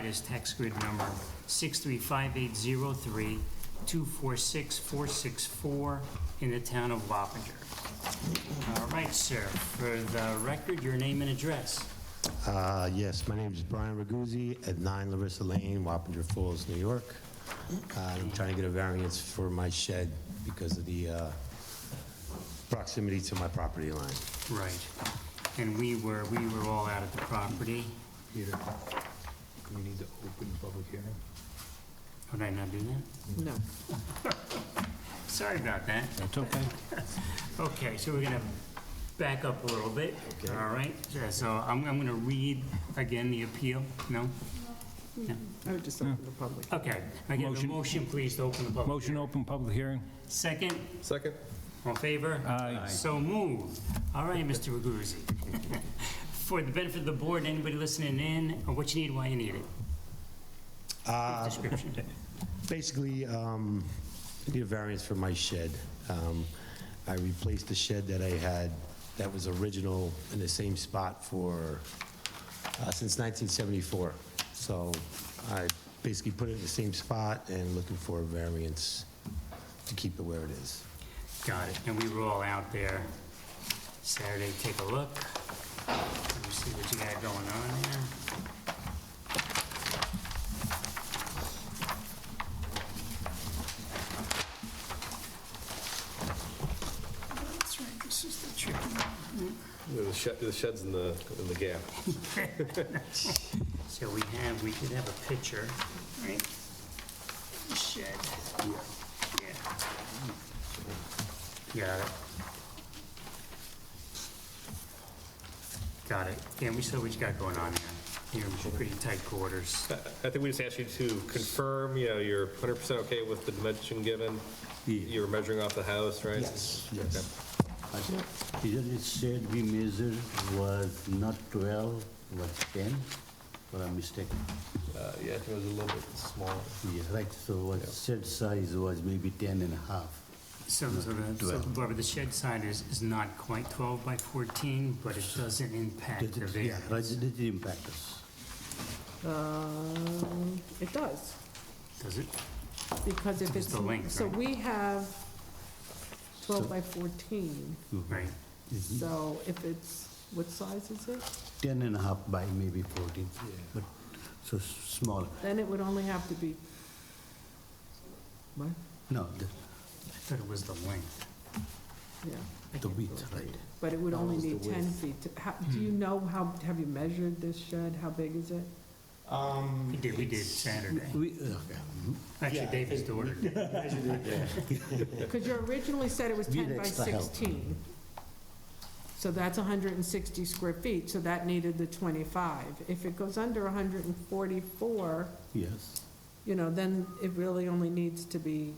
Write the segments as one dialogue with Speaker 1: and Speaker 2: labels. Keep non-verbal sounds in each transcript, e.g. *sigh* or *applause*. Speaker 1: is tax grid number 6358032464464 in the town of Wappinger. All right, sir, for the record, your name and address.
Speaker 2: Uh, Yes, my name is Brian Raguzzi at 9 Larissa Lane, Wappinger Falls, New York. Uh, I'm trying to get a variance for my shed because of the uh, proximity to my property line.
Speaker 1: Right. And we were, we were all out at the property.
Speaker 3: Peter, do we need to open the public hearing?
Speaker 1: Would Oh, I not do that?
Speaker 4: No.
Speaker 1: Sorry about that.
Speaker 3: That's okay.
Speaker 1: Okay, so we're gonna back up a little bit,
Speaker 2: Okay.
Speaker 1: all right? Yeah, So I'm, I'm gonna read again the appeal, no?
Speaker 4: I would just open the public.
Speaker 1: Okay, I get a
Speaker 3: Motion.
Speaker 1: motion, please, to open the public.
Speaker 3: Motion open public hearing?
Speaker 1: Second,
Speaker 5: Second?
Speaker 1: all in favor?
Speaker 3: Aye.
Speaker 1: So moved. All right, Mr. Raguzzi. *laughs* For the benefit of the board, anybody listening in, or what you need, why you need it,
Speaker 2: Uh,
Speaker 1: description.
Speaker 2: Basically, um, I need a variance for my shed. Um, I replaced the shed that I had that was original in the same spot for, uh, since 1974. So I basically put it in the same spot and looking for a variance to keep it where it is.
Speaker 1: Got it, and we were all out there Saturday, take a look. Let me see what you got going on there. That's right, this is the tricky one.
Speaker 5: The shed, the shed's in the, in the gap.
Speaker 1: So we have, we did have a picture, right? Shed. Yeah. Got it. Got it. Yeah, we saw what you got going on there. You're pretty tight quarters.
Speaker 5: I think we just asked you to confirm, you know, you're 100% okay with the dimension given? You were measuring off the house, right?
Speaker 2: Yes, yes.
Speaker 6: I think Either it said we measured was not 12, was 10, or I'm mistaken.
Speaker 5: Uh, Yeah, I think it was a little bit smaller.
Speaker 6: Yeah, right, so what said size was maybe 10 and a half.
Speaker 1: So, so the, so
Speaker 6: Twelve.
Speaker 1: Barbara, the shed side is, is not quite 12 by 14, but it doesn't impact the
Speaker 6: Did it- Yeah,
Speaker 1: variance.
Speaker 6: right, did it impact us?
Speaker 4: Um, It does,
Speaker 1: Does it?
Speaker 4: because if
Speaker 1: It's
Speaker 4: it's,
Speaker 1: the length,
Speaker 4: so
Speaker 1: right?
Speaker 4: we have 12 by 14,
Speaker 6: Mm-hmm.
Speaker 1: Right.
Speaker 4: so if it's, what size is it?
Speaker 6: 10 and a half by maybe 14, but, so s- small.
Speaker 4: Then it would only have to be, what?
Speaker 6: No, the-
Speaker 1: I thought it was the length.
Speaker 4: Yeah. I
Speaker 6: the
Speaker 4: can't
Speaker 6: width,
Speaker 4: do it.
Speaker 6: right.
Speaker 4: But it would only need 10 feet. to- how- Do you know how, have you measured this shed? How big is it?
Speaker 1: We did, we did Saturday.
Speaker 6: We, okay. mhm.
Speaker 1: Actually, David's daughter did.
Speaker 4: Because you originally said it was
Speaker 6: We need
Speaker 4: 10 by
Speaker 6: extra help.
Speaker 4: 16. So that's 160 square feet, so that needed the 25. If it goes under 144,
Speaker 6: Yes,
Speaker 4: you know, then it really only needs to be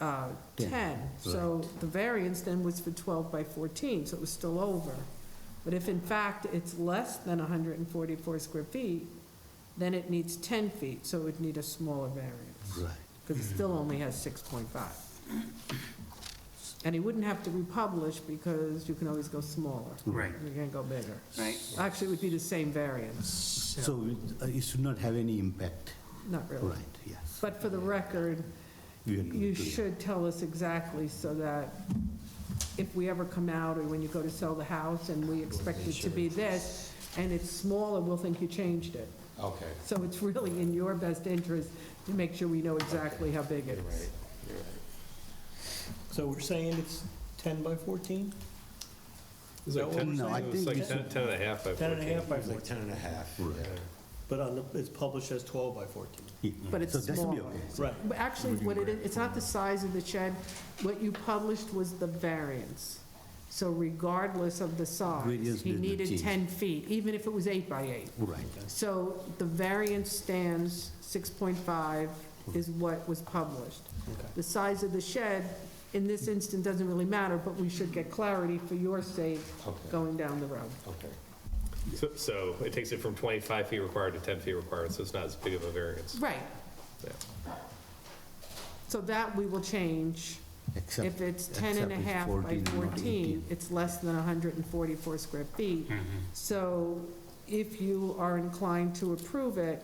Speaker 4: uh,
Speaker 6: 10,
Speaker 4: 10. So the variance then was for 12 by 14, so it was still over. But if in fact it's less than 144 square feet, then it needs 10 feet, so it would need a smaller variance
Speaker 6: right.
Speaker 4: because it still only has 6.5. And he wouldn't have to republish because you can always go smaller.
Speaker 6: Mm-hmm.
Speaker 1: Right.
Speaker 4: You can go bigger.
Speaker 1: Right.
Speaker 4: Actually, it would be the same variance,
Speaker 6: So it- uh, it should not have any impact,
Speaker 4: not really.
Speaker 6: right, yes.
Speaker 4: But for the record,
Speaker 6: We are doing
Speaker 4: you
Speaker 6: two, yeah.
Speaker 4: should tell us exactly so that if we ever come out or when you go to sell the house and we expect it to be this, and it's smaller, we'll think you changed it.
Speaker 2: Okay.
Speaker 4: So it's really in your best interest to make sure we know exactly how big it is.
Speaker 7: So we're saying it's 10 by 14? Is that what we're
Speaker 6: No, I
Speaker 7: saying?
Speaker 5: It was
Speaker 6: think
Speaker 5: like
Speaker 6: it's
Speaker 5: 10 10 and a half by
Speaker 7: 10 and a
Speaker 5: 14.
Speaker 7: half by
Speaker 2: It's like
Speaker 7: 14,
Speaker 2: 10 and a half.
Speaker 7: but on the, it's published as 12 by 14.
Speaker 4: But it's
Speaker 6: So that should be
Speaker 4: smaller.
Speaker 6: okay.
Speaker 7: Right.
Speaker 4: But Actually, what it is, it's not the size of the shed. What you published was the variance. So regardless of the size,
Speaker 6: Variance
Speaker 4: he
Speaker 6: did not
Speaker 4: needed
Speaker 6: change.
Speaker 4: 10 feet, even if it was eight by eight.
Speaker 6: Right,
Speaker 4: So the variance stands, 6.5 is what was published. The size of the shed, in this instance, doesn't really matter, but we should get clarity for your sake going down the road.
Speaker 2: Okay.
Speaker 5: So- So it takes it from 25 feet required to 10 feet required, so it's not as big of a variance.
Speaker 4: Right.
Speaker 5: Yeah.
Speaker 4: So that we will change.
Speaker 6: except.
Speaker 4: If it's 10 and a
Speaker 6: except it's
Speaker 4: half
Speaker 6: 14
Speaker 4: by
Speaker 6: and not
Speaker 4: 14,
Speaker 6: 18.
Speaker 4: it's less than 144 square feet. So if you are inclined to approve it,